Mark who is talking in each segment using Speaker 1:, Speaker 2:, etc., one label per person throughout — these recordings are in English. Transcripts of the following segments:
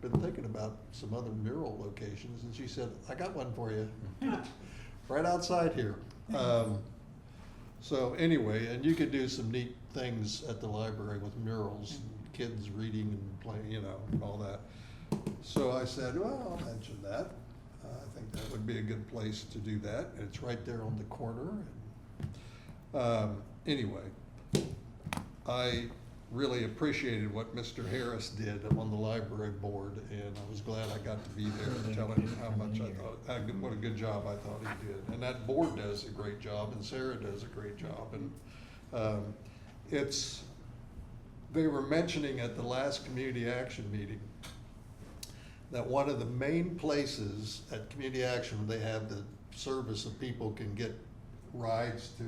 Speaker 1: been thinking about some other mural locations, and she said, I got one for you, right outside here. Um, So anyway, and you could do some neat things at the library with murals, and kids reading and playing, you know, and all that. So I said, well, I'll mention that. Uh, I think that would be a good place to do that. It's right there on the corner. Um, Anyway, I really appreciated what Mr. Harris did on the library board, and I was glad I got to be there and tell him how much I thought, how good- what a good job I thought he did. And that board does a great job, and Sarah does a great job, and, um, it's, they were mentioning at the last community action meeting that one of the main places at community action, they have the service of people can get rides to,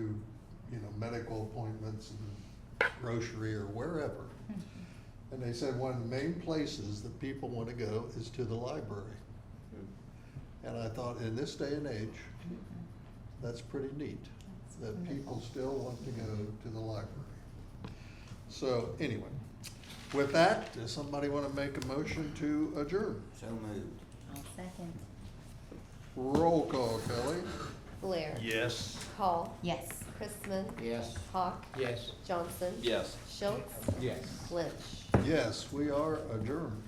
Speaker 1: you know, medical appointments and grocery or wherever. And they said one of the main places that people want to go is to the library. And I thought, in this day and age, that's pretty neat, that people still want to go to the library. So anyway, with that, does somebody want to make a motion to adjourn?
Speaker 2: So moved.
Speaker 3: I'll second.
Speaker 1: Roll call, Kelly.
Speaker 4: Blair.
Speaker 1: Yes.
Speaker 4: Call.
Speaker 3: Yes.
Speaker 4: Chrisman.
Speaker 2: Yes.
Speaker 4: Hawk.
Speaker 2: Yes.
Speaker 4: Johnson.
Speaker 2: Yes.
Speaker 4: Schultz.
Speaker 2: Yes.
Speaker 4: Lynch.
Speaker 1: Yes, we are adjourned.